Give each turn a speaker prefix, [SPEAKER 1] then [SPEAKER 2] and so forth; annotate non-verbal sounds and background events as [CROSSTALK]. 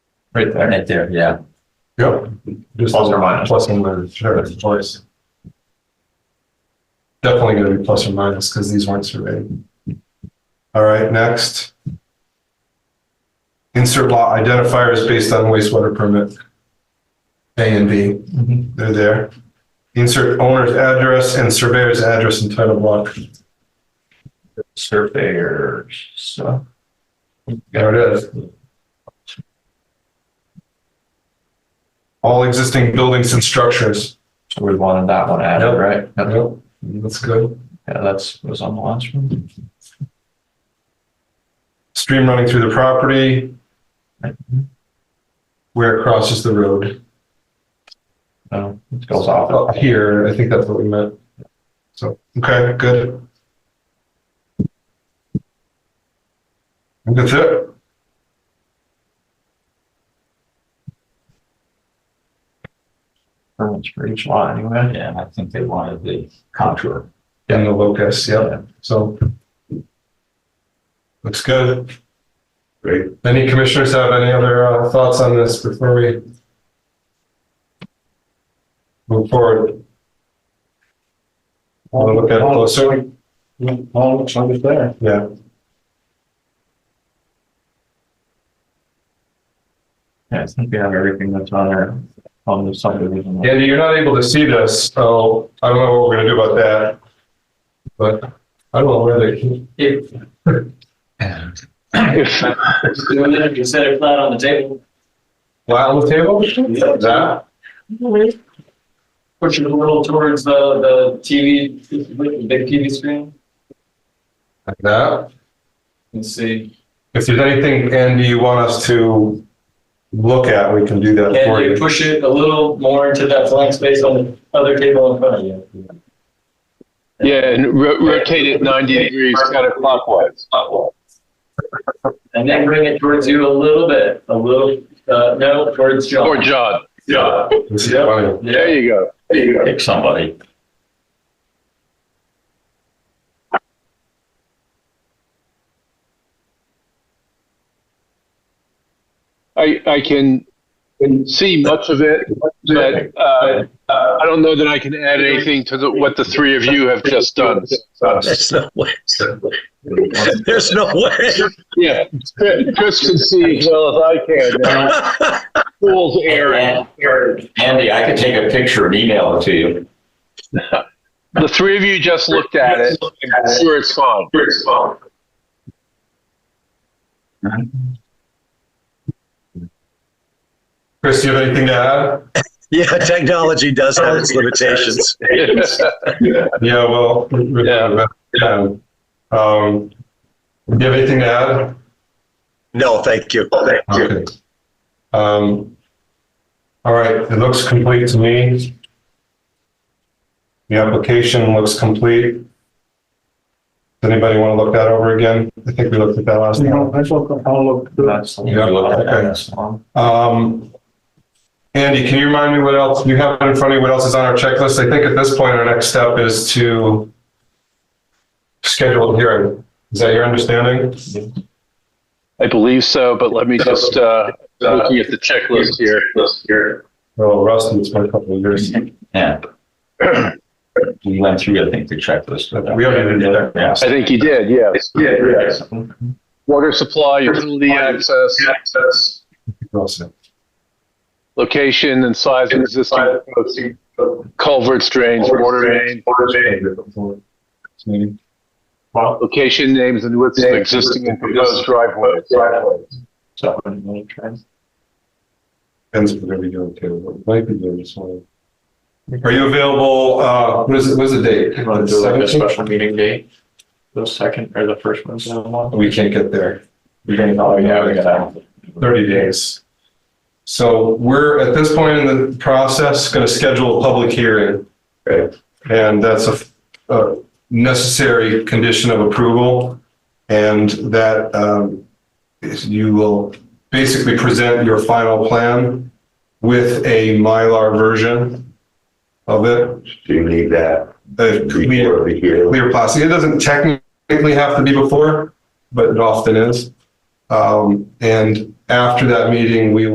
[SPEAKER 1] Right there.
[SPEAKER 2] right there, yeah.
[SPEAKER 1] Yep. Just
[SPEAKER 3] Plus or minus.
[SPEAKER 1] Plus and minus, sure, it's choice. Definitely gonna be plus or minus, because these weren't surveyed. All right, next. Insert lot identifiers based on wastewater permit. A and B,
[SPEAKER 2] Mm-hmm.
[SPEAKER 1] they're there. Insert owner's address and surveyor's address and title block.
[SPEAKER 3] surveyors, so.
[SPEAKER 1] There it is. All existing buildings and structures.
[SPEAKER 3] So we wanted that one added,
[SPEAKER 1] Yep.
[SPEAKER 3] right? Yep.
[SPEAKER 1] Yep, That's good.
[SPEAKER 3] Yeah, that's, was on the last one.
[SPEAKER 1] stream running through the property, where it crosses the road.
[SPEAKER 3] No, it goes off.
[SPEAKER 1] Up here, I think that's what we meant. So, okay, good. And That's it.
[SPEAKER 3] Permits for each lot anyway.
[SPEAKER 2] Yeah, I think they wanted the contour.
[SPEAKER 1] And the locus, yeah, so. Looks good. Great. Any commissioners have any other uh, thoughts on this before we move forward? Want to look at it closer?
[SPEAKER 3] All looks like it's there.
[SPEAKER 1] Yeah.
[SPEAKER 3] Yeah, I think we have everything that's on there, on the subdivision.
[SPEAKER 1] Andy, you're not able to see this, so I don't know what we're gonna do about that. But I don't know where they,
[SPEAKER 4] If, if you set it flat on the table,
[SPEAKER 1] flat on the table?
[SPEAKER 4] Yeah.
[SPEAKER 1] That?
[SPEAKER 4] push it a little towards the, the TV, the big TV screen,
[SPEAKER 1] Like that?
[SPEAKER 4] and see.
[SPEAKER 1] If there's anything, Andy, you want us to look at, we can do that for
[SPEAKER 4] And you
[SPEAKER 1] you.
[SPEAKER 4] push it a little more into that blank space on the other table in front of you.
[SPEAKER 5] Yeah, and ro- rotate it 90 degrees counterclockwise.
[SPEAKER 4] And then bring it towards you a little bit, a little, uh, no, towards John.
[SPEAKER 5] Or John.
[SPEAKER 4] Yeah.
[SPEAKER 1] This is funny.
[SPEAKER 5] There
[SPEAKER 4] Yeah,
[SPEAKER 5] you go. There you go.
[SPEAKER 2] Pick somebody.
[SPEAKER 5] I, I can see much of it, but uh, I don't know that I can add anything to the, what the three of you have just done.
[SPEAKER 6] There's no way. There's no way.
[SPEAKER 5] Yeah, Chris can see as well as I can. Uh, Fool's errand.
[SPEAKER 2] Andy, I could take a picture and email it to you.
[SPEAKER 5] The three of you just looked at it. I'm sure it's fine.
[SPEAKER 1] Chris, do you have anything to add?
[SPEAKER 6] [LAUGHS] Yeah, technology does have its limitations.
[SPEAKER 1] Yeah, well. we-
[SPEAKER 5] Yeah.
[SPEAKER 1] yeah. Um, do you have anything to add?
[SPEAKER 6] No, thank you.
[SPEAKER 1] Okay. Um, all right, it looks complete to me. The application looks complete. Does anybody want to look that over again? I think we looked at that last time.
[SPEAKER 3] That's the
[SPEAKER 1] Yeah, okay.
[SPEAKER 3] one.
[SPEAKER 1] Um, Andy, can you remind me what else you have in front of you? What else is on our checklist? I think at this point, our next step is to schedule a hearing. Is that your understanding?
[SPEAKER 5] I believe so, but let me just, uh, looking at the checklist here.
[SPEAKER 1] Well, Rusty, it's been a couple of years.
[SPEAKER 2] Yeah. [CLEARS THROAT] We went through, I think, the checklist. with them.
[SPEAKER 1] We already did that.
[SPEAKER 2] Yeah.
[SPEAKER 5] I think you did, yes.
[SPEAKER 2] Yeah.
[SPEAKER 5] Water supply, utility access,
[SPEAKER 1] Russell.
[SPEAKER 5] location and size of existing culverts, drains, water main, location names and widths of existing and proposed driveways.
[SPEAKER 3] So, I'm gonna try.
[SPEAKER 1] Depends what we doing too, might be doing this one. Are you available, uh, what is, it? what's the date?
[SPEAKER 3] You want to do like a
[SPEAKER 1] 17th?
[SPEAKER 3] special meeting date? The second or the first one?
[SPEAKER 1] We can't get there,
[SPEAKER 3] We're gonna
[SPEAKER 7] Oh,
[SPEAKER 3] call it, yeah, we gotta.
[SPEAKER 1] thirty days. So we're, at this point in the process, gonna schedule a public hearing.
[SPEAKER 3] Right.
[SPEAKER 1] And that's a, a necessary condition of approval. And that, um, is you will basically present your final plan with a Mylar version of it.
[SPEAKER 7] Do you need that
[SPEAKER 1] the clear,
[SPEAKER 7] before the hearing?
[SPEAKER 1] clear plastic. It doesn't technically have to be before, but it often is. Um, and after that meeting, we